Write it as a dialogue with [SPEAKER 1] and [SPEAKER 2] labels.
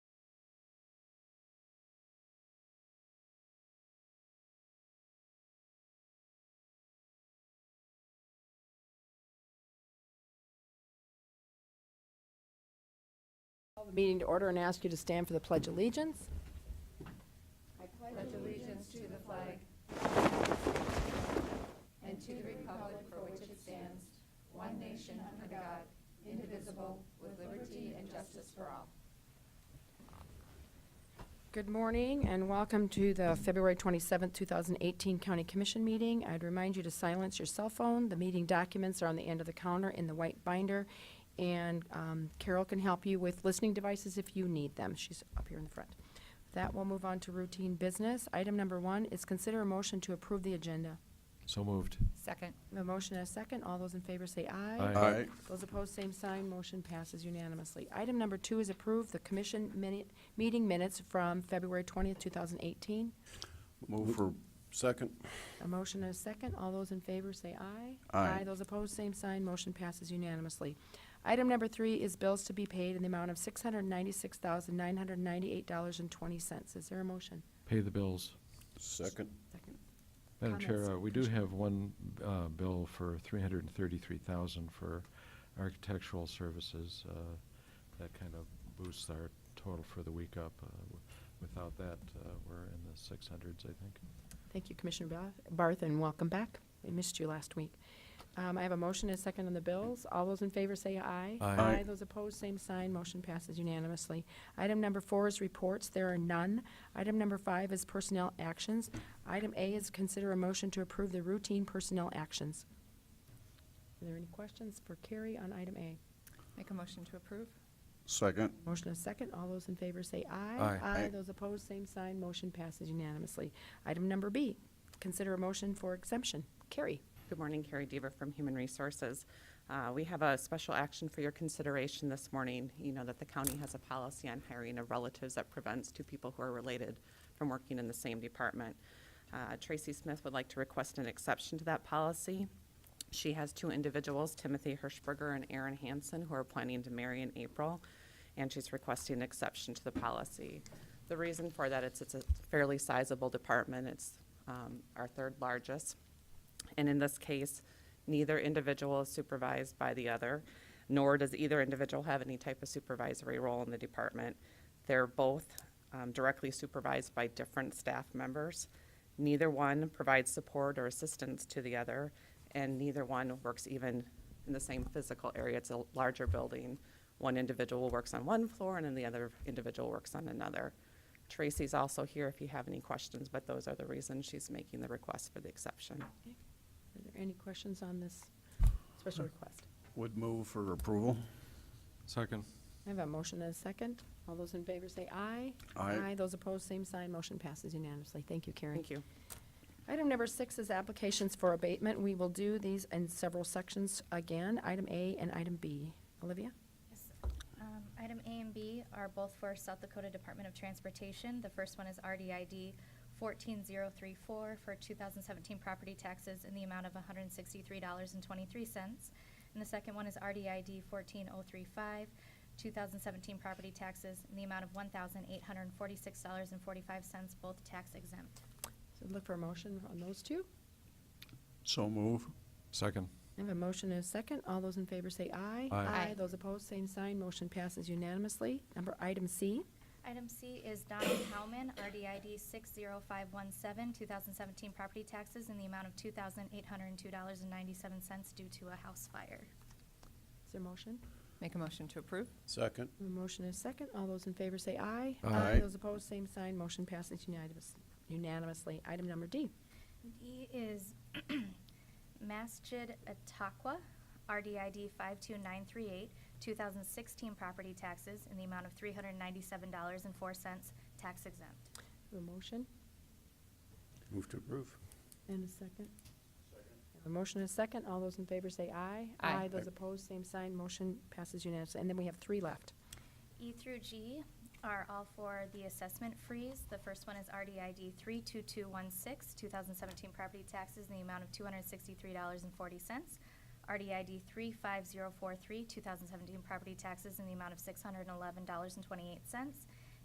[SPEAKER 1] Meeting to order and ask you to stand for the Pledge of Allegiance. Good morning and welcome to the February 27, 2018 County Commission meeting. I'd remind you to silence your cell phone. The meeting documents are on the end of the counter in the white binder. And um, Carol can help you with listening devices if you need them. She's up here in the front. With that, we'll move on to routine business. Item number one is consider a motion to approve the agenda.
[SPEAKER 2] So moved.
[SPEAKER 3] Second.
[SPEAKER 1] A motion and a second. All those in favor say aye.
[SPEAKER 2] Aye.
[SPEAKER 4] Aye.
[SPEAKER 1] Those opposed, same sign. Motion passes unanimously. Item number two is approve the commission minute, meeting minutes from February 20th, 2018.
[SPEAKER 4] Move for second.
[SPEAKER 1] A motion and a second. All those in favor say aye.
[SPEAKER 4] Aye.
[SPEAKER 1] Those opposed, same sign. Motion passes unanimously. Item number three is bills to be paid in the amount of $696,998.20. Is there a motion?
[SPEAKER 2] Pay the bills.
[SPEAKER 4] Second.
[SPEAKER 1] Second.
[SPEAKER 2] Madam Chair,
[SPEAKER 1] Comments,
[SPEAKER 2] uh, we do
[SPEAKER 1] Commissioner?
[SPEAKER 2] have one uh, bill for 333000 for architectural services. uh, That kind of boosts our total for the week up. Uh, w- Without that, uh, we're in the 600s, I think.
[SPEAKER 1] Thank you, Commissioner Ba- Barth, and welcome back. We missed you last week. Um, I have a motion and a second on the bills. All those in favor say aye.
[SPEAKER 2] Aye.
[SPEAKER 4] Aye.
[SPEAKER 1] Those opposed, same sign. Motion passes unanimously. Item number four is reports. There are none. Item number five is personnel actions. Item A is consider a motion to approve the routine personnel actions. Are there any questions for Carrie on item A?
[SPEAKER 3] Make a motion to approve?
[SPEAKER 4] Second.
[SPEAKER 1] Motion is second. All those in favor say aye.
[SPEAKER 2] Aye.
[SPEAKER 4] Aye.
[SPEAKER 1] Those opposed, same sign. Motion passes unanimously. Item number B, consider a motion for exemption. Carrie,
[SPEAKER 5] Good morning, Carrie Dever from Human Resources. Uh, We have a special action for your consideration this morning. You know that the county has a policy on hiring of relatives that prevents two people who are related from working in the same department. Uh, Tracy Smith would like to request an exception to that policy. She has two individuals, Timothy Hirschberger and Aaron Hansen, who are planning to marry in April, and she's requesting an exception to the policy. The reason for that, it's, it's a fairly sizable department. It's um, our third largest. And in this case, neither individual is supervised by the other, nor does either individual have any type of supervisory role in the department. They're both um, directly supervised by different staff members. Neither one provides support or assistance to the other, and neither one works even in the same physical area. It's a larger building. One individual works on one floor, and then the other individual works on another. Tracy's also here if you have any questions, but those are the reasons she's making the request for the exception.
[SPEAKER 1] are there any questions on this special request?
[SPEAKER 4] Would move for approval.
[SPEAKER 2] Second.
[SPEAKER 1] I have a motion and a second. All those in favor say aye.
[SPEAKER 4] Aye.
[SPEAKER 1] Those opposed, same sign. Motion passes unanimously. Thank you, Carrie.
[SPEAKER 5] Thank you.
[SPEAKER 1] Item number six is applications for abatement. We will do these in several sections again, item A and item B. Olivia?
[SPEAKER 6] Yes. Um, Item A and B are both for South Dakota Department of Transportation. The first one is RDID 14034 for 2017 property taxes in the amount of $163.23. And the second one is RDID 14035, 2017 property taxes in the amount of $1,846.45, both tax exempt.
[SPEAKER 1] So look for a motion on those two.
[SPEAKER 4] So move.
[SPEAKER 2] Second.
[SPEAKER 1] I have a motion and a second. All those in favor say aye.
[SPEAKER 2] Aye.
[SPEAKER 6] Aye.
[SPEAKER 1] Those opposed, same sign. Motion passes unanimously. Number item C.
[SPEAKER 6] Item C is Donald Howman, RDID 60517, 2017 property taxes in the amount of $2,802.97 due to a house fire.
[SPEAKER 1] Is there a motion?
[SPEAKER 3] Make a motion to approve?
[SPEAKER 4] Second.
[SPEAKER 1] A motion and a second. All those in favor say aye.
[SPEAKER 2] Aye.
[SPEAKER 1] Those opposed, same sign. Motion passes unanimous- unanimously. Item number D.
[SPEAKER 6] D is Masjid Ataqua, RDID 52938, 2016 property taxes in the amount of $397.04 tax exempt.
[SPEAKER 1] A motion
[SPEAKER 4] Move to approve.
[SPEAKER 1] and a second. A motion and a second. All those in favor say aye.
[SPEAKER 3] Aye.
[SPEAKER 1] Those opposed, same sign. Motion passes unanimously. And then we have three left.
[SPEAKER 6] E through G are all for the assessment freeze. The first one is RDID 32216, 2017 property taxes in the amount of $263.40. RDID 35043, 2017 property taxes in the amount of $611.28.